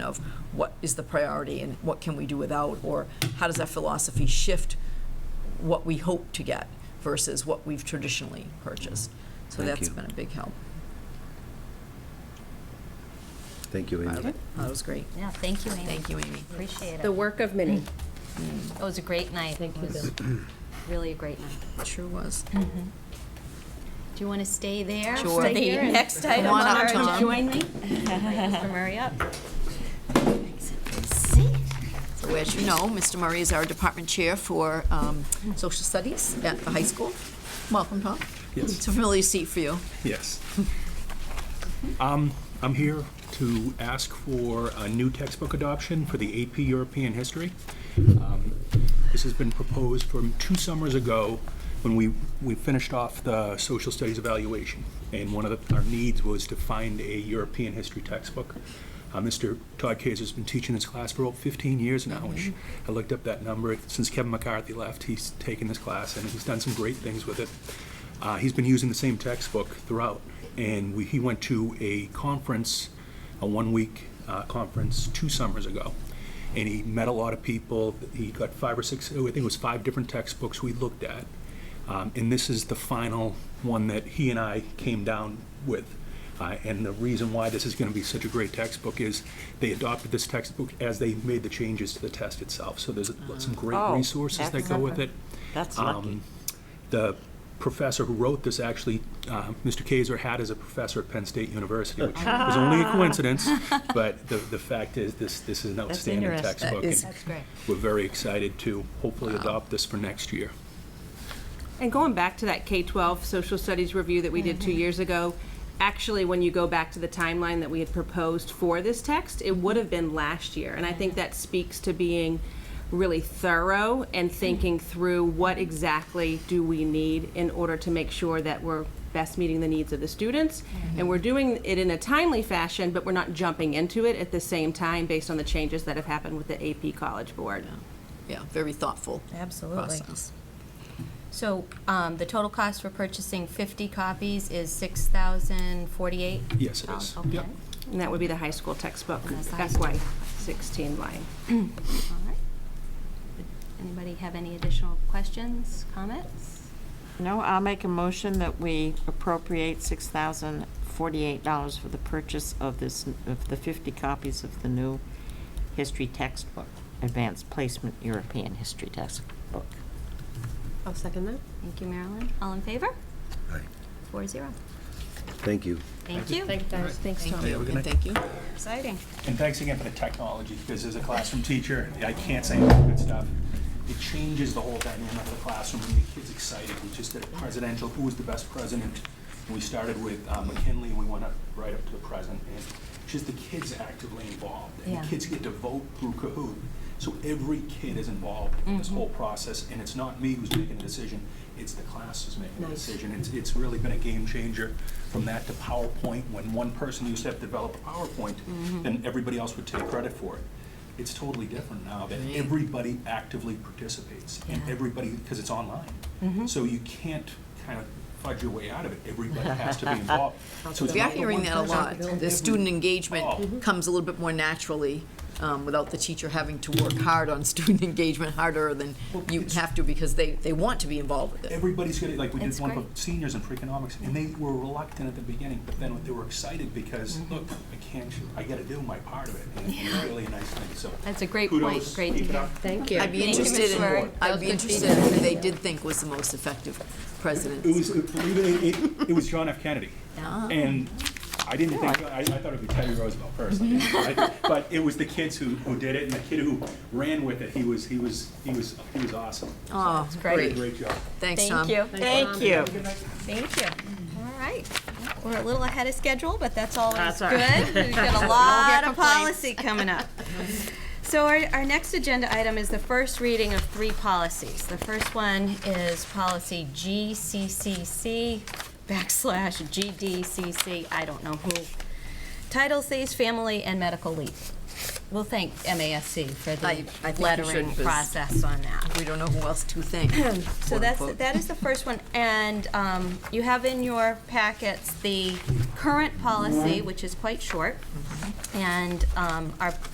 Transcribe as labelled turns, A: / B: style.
A: of what is the priority and what can we do without, or how does that philosophy shift what we hope to get versus what we've traditionally purchased. So
B: Thank
A: that's
B: you.
A: been a big help.
B: Thank you, Amy.
A: That was great.
C: Yeah, thank you, Amy.
A: Thank you, Amy. mm,
C: Appreciate it.
D: The work of many.
C: It was a great night.
D: Thank
C: It
D: you, Mm-hmm.
C: was Really a great night.
A: Sure was.
C: Do you want to stay there?
A: Sure.
C: for
A: Stay
C: the
A: here and
C: Next
A: come
C: item
A: on
C: on
A: up,
C: our,
A: Tom.
C: join me? Invite Mr. Murray up. See?
A: So as you know, Mr. Murray is our department chair for um, social studies at the high school. Welcome, Tom.
E: Yes.
A: It's a familiar seat for you.
E: Yes. Um, I'm here to ask for a new textbook adoption for the AP European History. Um, This has been proposed from two summers ago, when we, we finished off the social studies evaluation. And one of the- our needs was to find a European history textbook. Uh, Mr. Todd Kaiser's been teaching this class for over 15 years now, which I looked up that number. Since Kevin McCarthy left, he's taken this class, and he's done some great things with it. Uh, he's been using the same textbook throughout, and we, he went to a conference, a one-week uh, conference two summers ago, and he met a lot of people. He got five or six, oh, I think it was five different textbooks we looked at, um, and this is the final one that he and I came down with. Uh, and the reason why this is going to be such a great textbook is they adopted this textbook as they made the changes to the test itself. So there's some great
F: Oh,
E: resources that
F: that's-
E: go with it.
F: That's lucky.
E: Um, The professor who wrote this actually, uh, Mr. Kaiser had as a professor at Penn State University, which was only a coincidence, but the, the fact is, this, this is an outstanding
F: interesting.
E: textbook.
A: That is-
E: and
C: That's great.
E: We're very excited to hopefully adopt this for next year.
G: And going back to that K-12 social studies review that we did two years ago, actually, when you go back to the timeline that we had proposed for this text, it would have been last year. And I think that speaks to being really thorough and thinking through what exactly do we need in order to make sure that we're best meeting the needs of the students. And we're doing it in a timely fashion, but we're not jumping into it at the same time based on the changes that have happened with the AP College Board.
A: Yeah, very thoughtful
C: Absolutely.
A: process.
C: So um, the total cost for purchasing 50 copies is 6,048?
E: Yes, it is.
C: Okay.
E: Yep.
G: And that would be the high school textbook,
C: That's the high school
G: FY sixteen line.
C: All right. Anybody have any additional questions, comments?
F: No, I'll make a motion that we appropriate $6,048 for the purchase of this, of the 50 copies of the new history textbook, Advanced Placement European History Textbook.
G: I'll second that.
C: Thank you, Marilyn. All in favor?
B: Aye.
C: Four zero.
B: Thank you.
C: Thank you.
G: Thanks, Tom.
A: Thank you,
E: we're
A: and
E: gonna-
A: thank you.
C: Exciting.
E: And thanks again for the technology, because as a classroom teacher, I can't say enough good stuff. It changes the whole dynamic of the classroom, and the kids excited, we just did a presidential, who was the best president? And we started with uh, McKinley, and we went up, right up to the present, and just the kids actively involved. And
C: Yeah.
E: the kids get to vote through Kahoot, so every kid is involved in
A: Mm-hmm.
E: this whole process, and it's not me who's making the decision, it's the class who's making the decision. It's, it's really been a game changer from that to PowerPoint, when one person used to have to develop a PowerPoint,
A: Mm-hmm.
E: then everybody else would take credit for it. It's totally different now that everybody actively participates, and
C: Yeah.
E: everybody, because it's
A: Mm-hmm.
E: online. So you can't kind of fudge your way out of it, everybody has to be involved. So it's
A: We are
E: not the
A: hearing
E: one
A: that a
E: person.
A: lot. The student engagement comes a little bit more naturally um, without the teacher having to work hard on student engagement, harder than you have to because they, they want to be involved with it.
E: Everybody's gonna, like, we did
C: It's
E: one for
C: great.
E: seniors in pre-economics, and they were reluctant at the beginning, but then they were excited because,
C: Mm-hmm.
E: look, I can't, I gotta do my part of it, and it's really a nice thing, so.
C: That's a great point.
E: kudos,
C: Great to
E: keep it
C: hear.
E: up.
D: Thank you.
A: I'd be
C: Thank you,
A: interested
C: Mr.
A: in,
C: Murray.
A: I'd be interested in who they did think was the most effective president.
E: It was, it- believe it, it, it was John F. Kennedy.
C: Ah.
E: And I didn't think, I, I thought it would be Teddy Roosevelt personally. I-
C: Mm-hmm.
E: But it was the kids who, who did it, and the kid who ran with it, he was, he was, he was, he was awesome.
A: Oh,
E: Did a
A: great.
E: great job.
A: Thanks, Tom.
F: Thank you.
C: Thank you. All right. We're a little ahead of schedule, but that's always
F: That's all
C: good.
F: right.
C: We've got a lot of policy coming up. So our, our next agenda item is the first reading of three policies. The first one is policy GCCC backslash GDCC, I don't know who, title says family and medical leave. We'll thank MASC for
A: I- I
C: the
A: think you
C: lettering
A: should, 'cause-
C: process on that.
A: We don't know who else to thank.
C: So
A: quote,
C: that's,
A: unquote.
C: that is the first one, and um, you have in your packets the current policy, which is quite short, and um, our